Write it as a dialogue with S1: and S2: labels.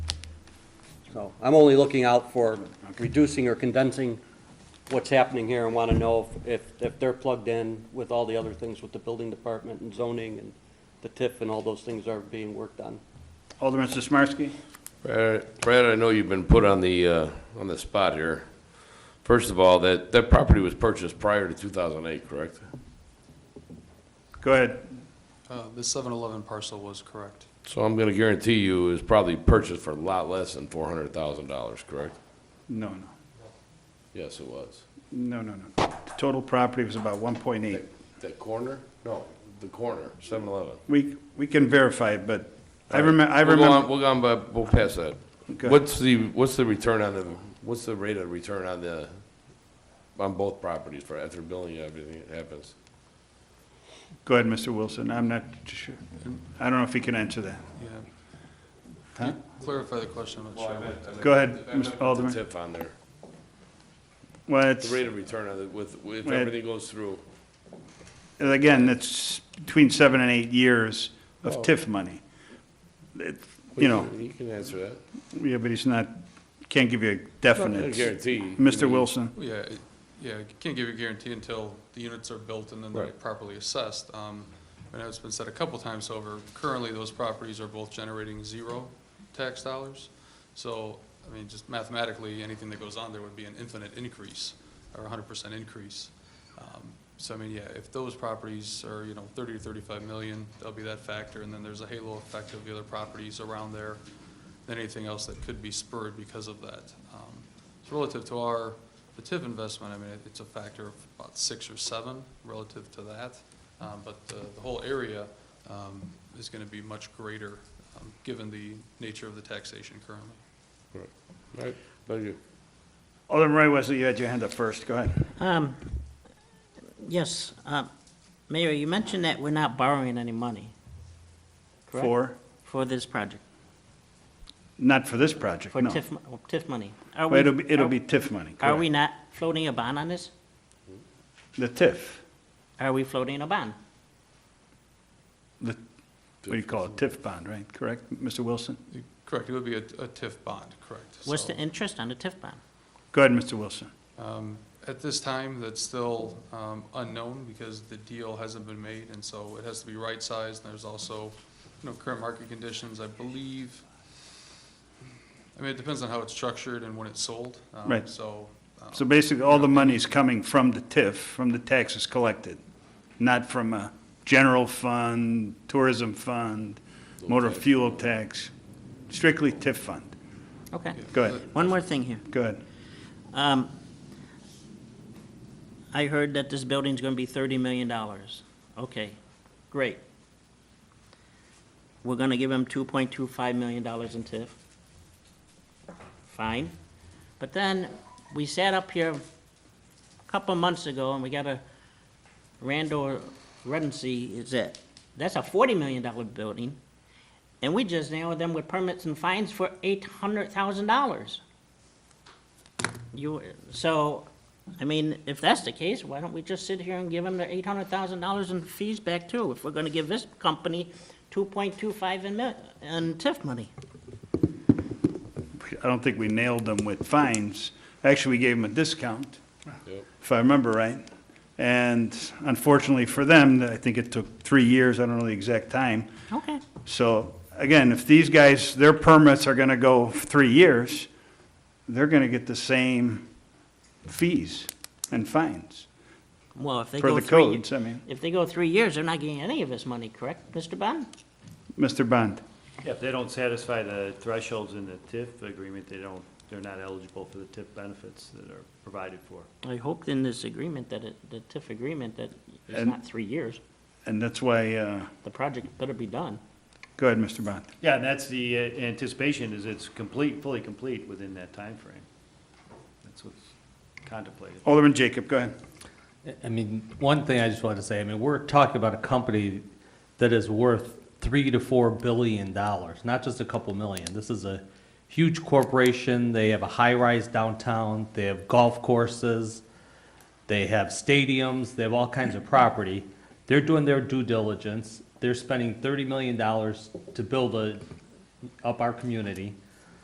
S1: So I'm only looking out for reducing or condensing what's happening here and want to know if, if- if they're plugged in with all the other things with the building department and zoning and the TIF and all those things are being worked on.
S2: Alderman Sismarski?
S3: Brad, Brad, I know you've been put on the, uh, on the spot here. First of all, that, that property was purchased prior to 2008, correct?
S2: Go ahead.
S4: Uh, The 7-Eleven parcel was correct.
S3: So I'm going to guarantee you it was probably purchased for a lot less than $400,000, correct?
S2: No, no,
S3: Yes, it was.
S2: no, no, no. The Total property was about 1.8.
S3: That corner? No, the corner, 7-Eleven.
S2: We, we can verify, it, but I remember, I remember,
S3: We'll go on, but we'll pass that.
S2: Okay.
S3: What's the, what's the return on the, what's the rate of return on the, on both properties for after billing and everything that happens?
S2: go ahead, Mr. Wilson, I'm not sure. I don't know if he can answer that.
S4: Yeah.
S2: Huh?
S4: Clarify the question, I'm not sure. what-
S2: Go ahead, Mr. Alderman.
S3: Tip on there.
S2: Well,
S3: The
S2: it's,
S3: rate of return on it with, if
S2: Right.
S3: everything goes through,
S2: again, it's between seven and eight years of
S3: Oh.
S2: TIF money. It- You know,
S3: you can answer that.
S2: yeah, but he's not, can't give you a
S3: I
S2: definite.
S3: guarantee.
S2: Mr. Wilson,
S4: Yeah, it- yeah, I can't give you a guarantee until the units are built and then they're
S3: Right.
S4: properly assessed. Um, And it's been said a couple times over, currently those properties are both generating zero tax dollars. So, I mean, just mathematically, anything that goes on there would be an infinite increase or hundred percent increase. Um, So I mean, yeah, if those properties are, you know, thirty to thirty-five million, that'll be that factor. And then there's a halo effect of the other properties around there than anything else that could be spurred because of that. Um, So relative to our, the TIF investment, I mean, it- it's a factor of about six or seven relative to that. Um, But the, the whole area um, is going to be much greater, um, given the nature of the taxation currently.
S3: Right, thank you.
S2: Alderman Roy Wesley, you had your hand up first, go ahead.
S5: Um, Yes, uh, Mayor, you mentioned that we're not borrowing any money. correct?
S2: For,
S5: For this project,
S2: not for this project,
S5: for
S2: no.
S5: TIF, mo- TIF money. Are
S2: Well,
S5: we-
S2: It'll be, it'll
S5: are-
S2: be TIF money,
S5: Are we
S2: correct?
S5: not floating a bond on this?
S2: The TIF,
S5: Are we floating a bond?
S2: the, what do you call it, TIF bond, right, correct, Mr. Wilson?
S4: Correct, it would be a a TIF bond, correct.
S5: What's
S4: So-
S5: the interest on the TIF bond?
S2: Go ahead, Mr. Wilson.
S4: Um, At this time, that's still um, unknown because the deal hasn't been made, and so it has to be right-sized. And there's also, you know, current market conditions, I believe. I mean, it depends on how it's structured and when it's sold. um,
S2: Right.
S4: So, um,
S2: So basically, all the money is coming from the TIF, from the taxes collected, not from a general fund, tourism fund, motor fuel tax, strictly TIF fund.
S5: Okay,
S2: Go ahead,
S5: one more thing here.
S2: go ahead.
S5: Um, I heard that this building's gonna be thirty million dollars. Okay, great. We're gonna give him two point two five million dollars in TIF. Fine. But then, we sat up here a couple months ago and we got a, Randall Redency is it? That's a forty million dollar building. And we just nailed them with permits and fines for eight hundred thousand dollars. You, so, I mean, if that's the case, why don't we just sit here and give them the eight hundred thousand dollars in fees back too? If we're gonna give this company two point two five in mil, in TIF money.
S2: I don't think we nailed them with fines. Actually, we gave them a discount,
S3: Yep.
S2: if I remember right. And unfortunately for them, I think it took three years, I don't know the exact time,
S5: Okay.
S2: So, again, if these guys, their permits are gonna go three years, they're gonna get the same fees and fines
S5: Well, if they
S2: for
S5: go
S2: the
S5: three,
S2: codes, I mean.
S5: if they go three years, they're not getting any of this money, correct, Mr. Bond?
S2: Mr. Bond,
S6: If they don't satisfy the thresholds in the TIF agreement, they don't, they're not eligible for the TIF benefits that are provided for.
S5: I hoped in this agreement that it, the TIF agreement, that it's
S2: And-
S5: not three years.
S2: and that's why, uh,
S5: The project better be done.
S2: go ahead, Mr. Bond.
S6: Yeah, and that's the uh, anticipation, is it's complete, fully complete within that time frame. That's what's contemplated.
S2: Alderman Jacob, go ahead.
S7: I mean, one thing I just want to say, I mean, we're talking about a company that is worth three to four billion dollars, not just a couple million. This is a huge corporation. They have a high-rise downtown. They have golf courses. They have stadiums. They have all kinds of property. They're doing their due diligence. They're spending thirty million dollars to build a, up our community.